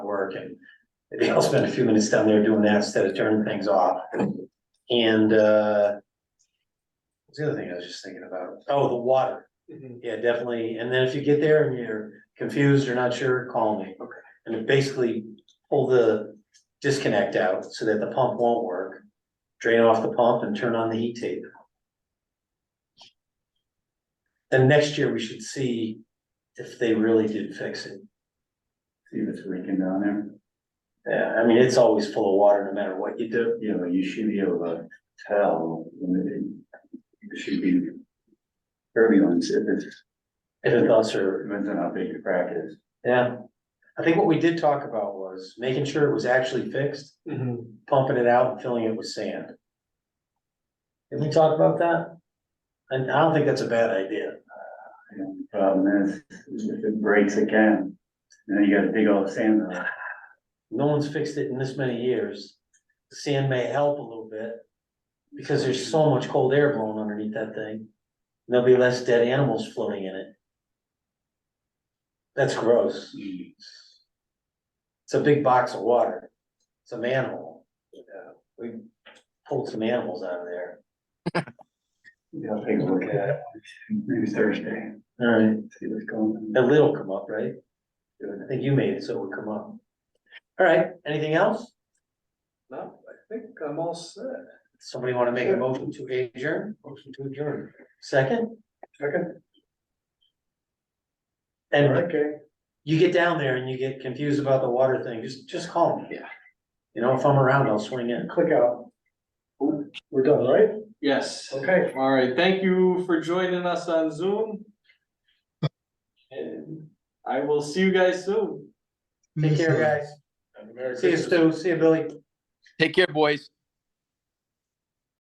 work and maybe I'll spend a few minutes down there doing that instead of turning things off. And, uh, what's the other thing I was just thinking about? Oh, the water. Yeah, definitely. And then if you get there and you're confused or not sure, call me. Okay. And then basically pull the disconnect out so that the pump won't work. Drain off the pump and turn on the heat tape. Then next year we should see if they really did fix it. See if it's leaking down there. Yeah, I mean, it's always full of water no matter what you do. You know, you should be able to tell when it, it should be turbulence if it's, If it does or, depends on how big the crack is. yeah. I think what we did talk about was making sure it was actually fixed, Mhm. pumping it out and filling it with sand. Did we talk about that? And I don't think that's a bad idea. You know, the Problem is, if it breaks again, then you gotta dig all the sand out. No one's fixed it in this many years. The Sand may help a little bit. Because there's so much cold air blowing underneath that thing. There'll be less dead animals floating in it. That's gross. It's a big box of water. It's a manhole. Yeah, We pulled some animals out of there. Yeah, I'll take a look at it. Maybe Thursday, Alright. see what's going on. And it'll come up, right? I think you made it, so it would come up. Alright, anything else? No, I think I'm all set. Somebody wanna make a motion to adjourn? Motion to adjourn. Second? Second. And Okay. you get down there and you get confused about the water thing, just, just call me. Yeah. You know, if I'm around, I'll swing in. Click out. We're done, right? Yes, Okay. all right, thank you for joining us on Zoom. And I will see you guys soon. Take care, guys. See you, Stu. See you, Billy. Take care, boys.